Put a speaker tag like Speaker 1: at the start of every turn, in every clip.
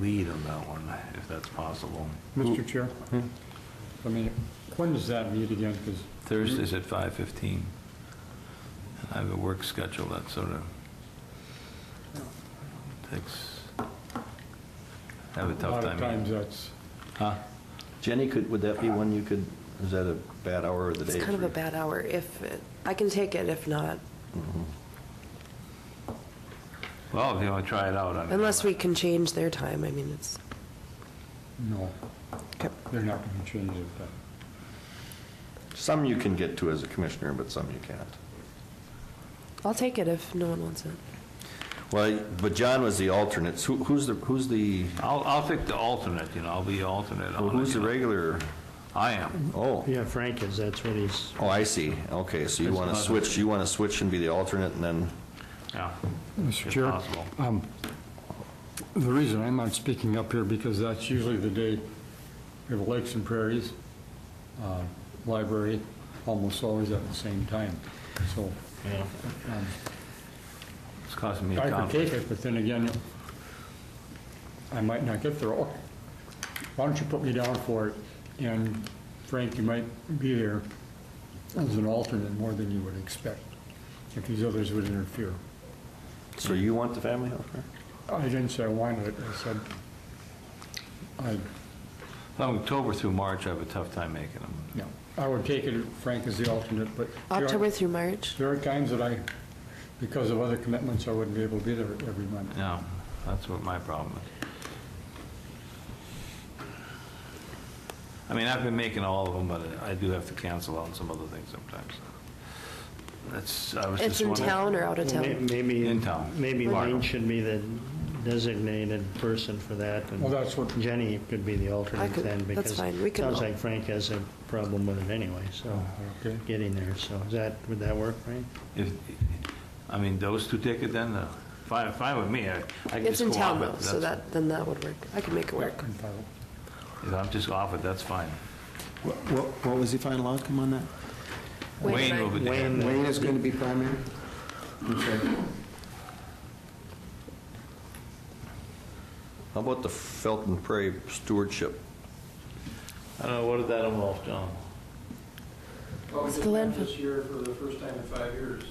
Speaker 1: lead on that one, if that's possible.
Speaker 2: Mr. Chair, I mean, when does that meet again? 'Cause
Speaker 1: Thursday's at 5:15. And I have a work schedule that sort of takes, I have a
Speaker 2: a
Speaker 1: tough
Speaker 2: lot of times
Speaker 1: time.
Speaker 2: that's,
Speaker 1: Huh?
Speaker 3: Jenny, could, would that be one you could, is that a bad hour of the day?
Speaker 4: It's kind of
Speaker 3: for
Speaker 4: a
Speaker 3: you?
Speaker 4: bad hour. If, it- I can take it, if not,
Speaker 1: Well, if you want to try it out. I mean,
Speaker 4: unless we can change their time, I mean, it's,
Speaker 2: no,
Speaker 4: okay.
Speaker 2: they're not going to change it, but
Speaker 3: Some you can get to as a commissioner, but some you can't.
Speaker 4: I'll take it if no one wants it.
Speaker 3: Well, but John was the alternate. Who, who's the, who's the,
Speaker 1: I'll, I'll pick the alternate, you know, I'll be alternate on it.
Speaker 3: who's
Speaker 1: you
Speaker 3: the
Speaker 1: know.
Speaker 3: regular?
Speaker 1: I am.
Speaker 3: Oh,
Speaker 5: Yeah, Frank is, that's what he's,
Speaker 3: oh, I see. Okay, so you
Speaker 1: It's
Speaker 3: want to
Speaker 1: not-
Speaker 3: switch, you want to switch and be the alternate and then,
Speaker 1: Yeah.
Speaker 2: Mr.
Speaker 1: if
Speaker 2: Chair?
Speaker 1: possible.
Speaker 2: the reason I'm not speaking up here, because that's usually the day we have Lakes and Prairies, uh, library, almost always at the same time, so. um,
Speaker 1: It's costing me a
Speaker 2: I could
Speaker 1: conflict.
Speaker 2: take it, but then again, I might not get there. Oh, Why don't you put me down for it? And Frank, you might be there as an alternate more than you would expect, if these others would interfere.
Speaker 3: so you want the family health care?
Speaker 2: I didn't say I wanted it, I said, I,
Speaker 1: From October through March, I have a tough time making them.
Speaker 2: no, I would take it, if Frank is the alternate, but there are-
Speaker 4: October through March?
Speaker 2: there are times that I, because of other commitments, I wouldn't be able to be there every month.
Speaker 1: No, that's what my problem is. I mean, I've been making all of them, but I do have to cancel on some other things sometimes. That's, I was
Speaker 4: It's
Speaker 1: just
Speaker 4: in
Speaker 1: wondering.
Speaker 4: town or out of
Speaker 5: May-
Speaker 4: town?
Speaker 5: maybe.
Speaker 1: In town.
Speaker 5: Maybe
Speaker 1: Mark.
Speaker 5: Lane should be the designated person for that. and
Speaker 2: Well, that's what-
Speaker 5: Jenny could be the
Speaker 4: I
Speaker 5: alternate
Speaker 4: could-
Speaker 5: then,
Speaker 4: that's
Speaker 5: because.
Speaker 4: fine, we can-
Speaker 5: Sounds like Frank has a problem with it anyway, so,
Speaker 2: Okay.
Speaker 5: getting there, so is that, would that work, Frank?
Speaker 1: If, I mean, those two take it then, uh, fine, fine with me. I I can
Speaker 4: It's
Speaker 1: just
Speaker 4: in
Speaker 1: go
Speaker 4: town
Speaker 1: off it.
Speaker 4: though, so
Speaker 1: that's-
Speaker 4: that, then that would work. I can make it work.
Speaker 1: If I'm just off it, that's fine.
Speaker 6: What, what- what was the final outcome on that?
Speaker 4: Wayne
Speaker 1: Wayne
Speaker 4: and I-
Speaker 1: will be there.
Speaker 5: Wayne-
Speaker 6: Wayne is going to be primary? Okay.
Speaker 3: How about the Felton Prairie stewardship?
Speaker 1: I don't know, what did that involve, John?
Speaker 7: Well, we
Speaker 4: It's
Speaker 7: just
Speaker 4: the
Speaker 7: met
Speaker 4: landfill.
Speaker 7: this year for the first time in five years,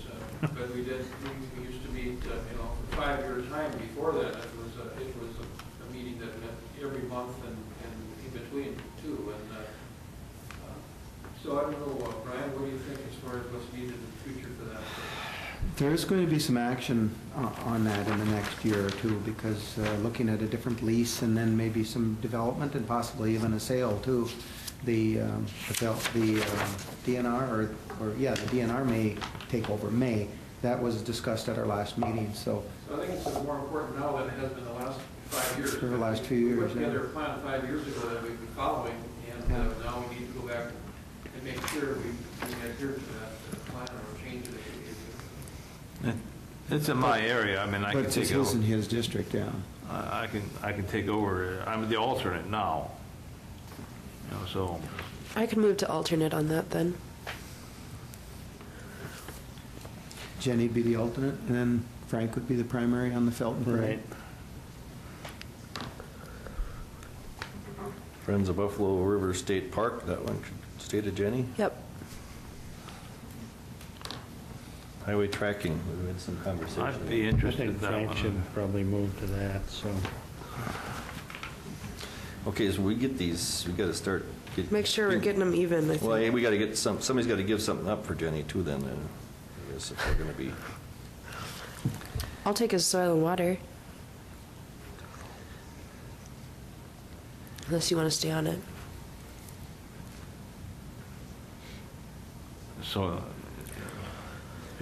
Speaker 7: uh, but we did, we- we used to meet, uh, you know, for five year time before that, it was, a- it was a- a meeting that met every month and, and in between too, and, uh, uh, so I don't know, uh, Brian, what do you think as far as what's needed in the future for that?
Speaker 6: There's going to be some action o- on that in the next year or two, because uh, looking at a different lease and then maybe some development and possibly even a sale too. The, um, the fel- the um, DNR, or, or, yeah, the DNR may take over, may. That was discussed at our last meeting, so
Speaker 7: So I think it's more important now than it has been the last five years.
Speaker 6: For the last few years,
Speaker 7: We put
Speaker 6: yeah.
Speaker 7: together a plan five years ago that we've been following, and uh,
Speaker 6: Yeah.
Speaker 7: now we need to go back and make sure we we adhere to that uh, plan or change it. if we need to.
Speaker 1: It's in my area, I mean, I can
Speaker 6: But
Speaker 1: take
Speaker 6: this
Speaker 1: it over.
Speaker 6: isn't his district, yeah.
Speaker 1: I I can, I can take over, uh, I'm the alternate now. You know, so,
Speaker 4: I can move to alternate on that then.
Speaker 6: Jenny would be the alternate, and then Frank would be the primary on the Felton Parade.
Speaker 3: Friends of Buffalo River State Park, that one, could stay to Jenny.
Speaker 4: Yep.
Speaker 3: Highway tracking, we had some conversation.
Speaker 1: I'd be
Speaker 5: I
Speaker 1: interested in
Speaker 5: think
Speaker 1: that
Speaker 5: Frank should
Speaker 1: one.
Speaker 5: probably move to that, so,
Speaker 3: Okay, so we get these, we got to start. get-
Speaker 4: Make sure we're getting them even, I
Speaker 3: Well, hey,
Speaker 4: think.
Speaker 3: we got to get some, somebody's got to give something up for Jenny too then, and I guess if we're going to be,
Speaker 4: I'll take his soil and water. Unless you want to stay on it.
Speaker 1: So, uh,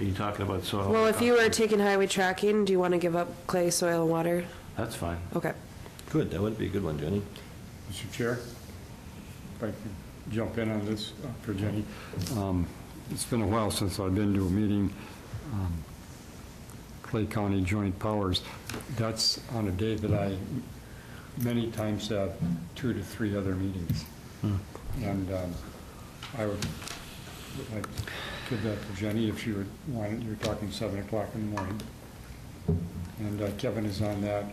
Speaker 1: are you talking about soil?
Speaker 4: Well, if you were taking highway tracking, do you want to give up clay, soil, and water?
Speaker 1: That's fine.
Speaker 4: Okay.
Speaker 3: good, that would be a good one, Jenny.
Speaker 2: Mr. Chair, if I could jump in on this uh, for Jenny. Um, It's been a while since I've been to a meeting, um, Clay County Joint Powers. That's on a day that I many times have two to three other meetings. And um, I would, would like to give that to Jenny if she would want it. You're talking 7 o'clock in the morning. And uh, Kevin is on that.